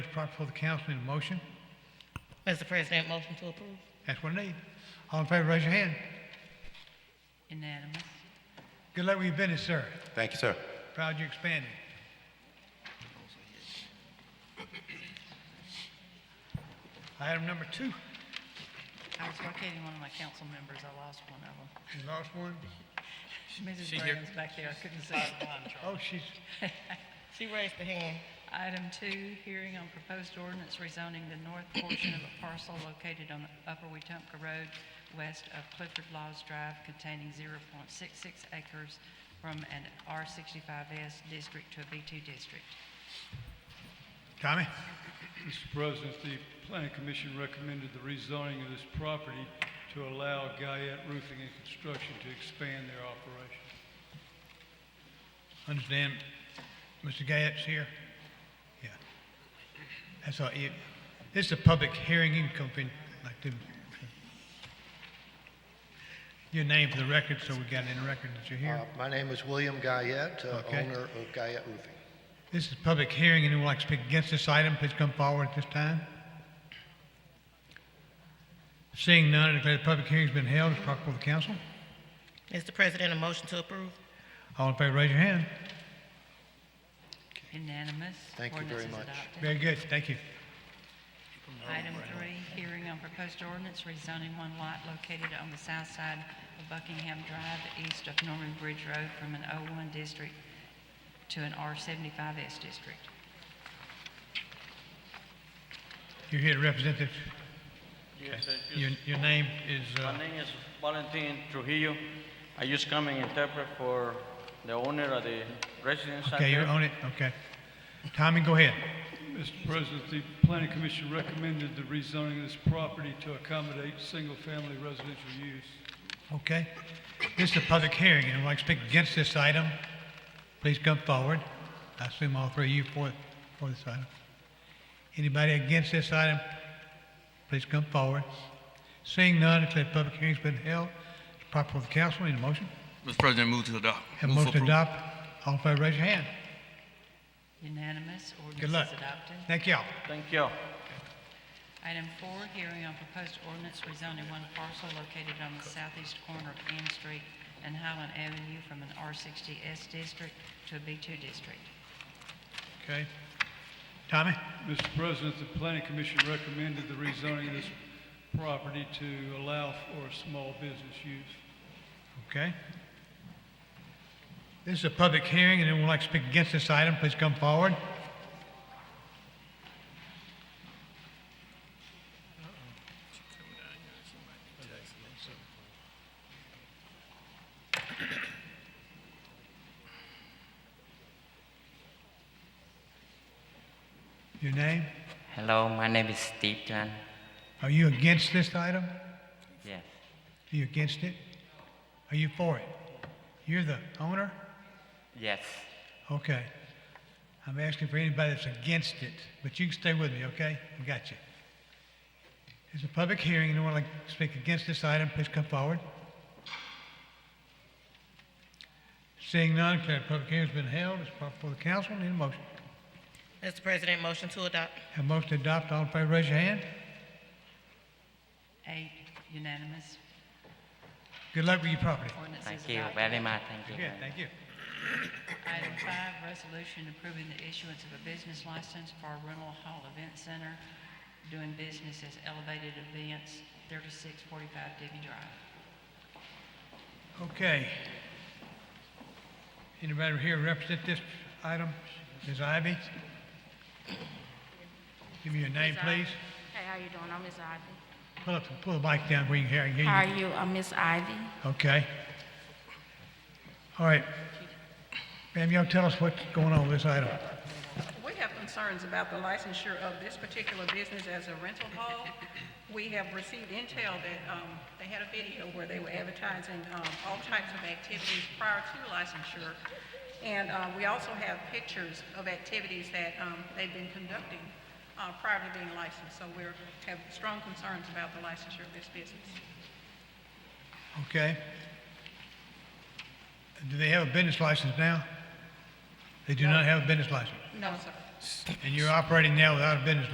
brought before the council in a motion. Mr. President, motion to approve. That's what I need. All in favor, raise your hand. Unanimous. Good luck with your business, sir. Thank you, sir. Proud you expanded. Item number two, you I was locating one of my council members. I lost one of them. lost one. Mrs. Graham's back there. I couldn't see her. Oh, she's, She raised her hand. Item two, hearing on proposed ordinance rezoning the north portion of a parcel located on Upper Wetumpka Road west of Clifford Laws Drive containing 0.66 acres from an R65S district to a B2 district. Tommy, Mr. President, the planning commission recommended the rezoning of this property to allow Guyette Roofing and Construction to expand their operation. understand Mr. Gadd's here? Yeah. That's all, you, this is a public hearing, you can come in like this. Your name for the record, so we got it in the record that you're Uh, here. My name is William Guyette, uh, Okay. owner of Guyette Roofing. This is a public hearing, anyone would like to speak against this item, please come forward at this time. Seeing none, I declare the public hearing's been held, it's brought before the council. Mr. President, a motion to approve. All in favor, raise your hand. Unanimous. Thank you very Ordinance is much. adopted. Very good, thank you. Item three, hearing on proposed ordinance rezoning one lot located on the south side of Buckingham Drive, east of Norman Bridge Road, from an O1 district to an R75S district. You're here to represent this, Yes, I your, just- your name is, my uh, name is Valentin Trujillo. I just come and interpret for the owner of the residence center. okay, you're on it, okay. Tommy, go ahead. Mr. President, the planning commission recommended the rezoning of this property to accommodate single-family residential use. Okay. This is a public hearing, anyone would like to speak against this item, please come forward. I assume all three of you for, for this item. Anybody against this item, please come forward. Seeing none, declare the public hearing's been held. It's proper for the council, need a motion? Mr. President, move to adopt. Have a Move for motion approval. to adopt. All in favor, raise your hand. Unanimous, ordinance Good luck. is adopted. Thank y'all. Thank you. Item four, hearing on proposed ordinance rezoning one parcel located on the southeast corner of Ann Street and Highland Avenue from an R60S district to a B2 district. Okay. Tommy? Mr. President, the planning commission recommended the rezoning of this property to allow for small business use. Okay. This is a public hearing, and anyone would like to speak against this item, please come forward. Your name? Hello, my name is Steve Chan. Are you against this item? Yes. Are you against it? Are you for it? You're the owner? Yes. Okay. I'm asking for anybody that's against it, but you can stay with me, okay? I got you. It's a public hearing. Anyone like to speak against this item, please come forward. Seeing none, declare the public hearing's been held. It's brought before the council. Need a motion. Mr. President, motion to adopt. Have a motion to adopt. All in favor, raise your hand. Eight, unanimous, Good luck with your property. ordinance is Thank adopted. you very much. Thank you. Good, thank you. Item five, resolution approving the issuance of a business license for a rental hall event center doing business as Elevated Events, 3645 Debbie Drive. Okay. Anybody here represent this item? Ms. Ivy? Give me your name, please. Hey, how you doing? I'm Miss Ivy. Pull up, pull the mic down where you can hear, I can How hear are you? I'm Miss Ivy. you. Okay. All right. Ma'am, y'all tell us what's going on with this item. We have concerns about the licensure of this particular business as a rental hall. We have received intel that um, they had a video where they were advertising um, all types of activities prior to licensure. And uh, we also have pictures of activities that um, they've been conducting uh, prior to being licensed. So we have strong concerns about the licensure of this business. Okay. Do they have a business license now? They do not have a business license. No, sir. And you're operating now without a business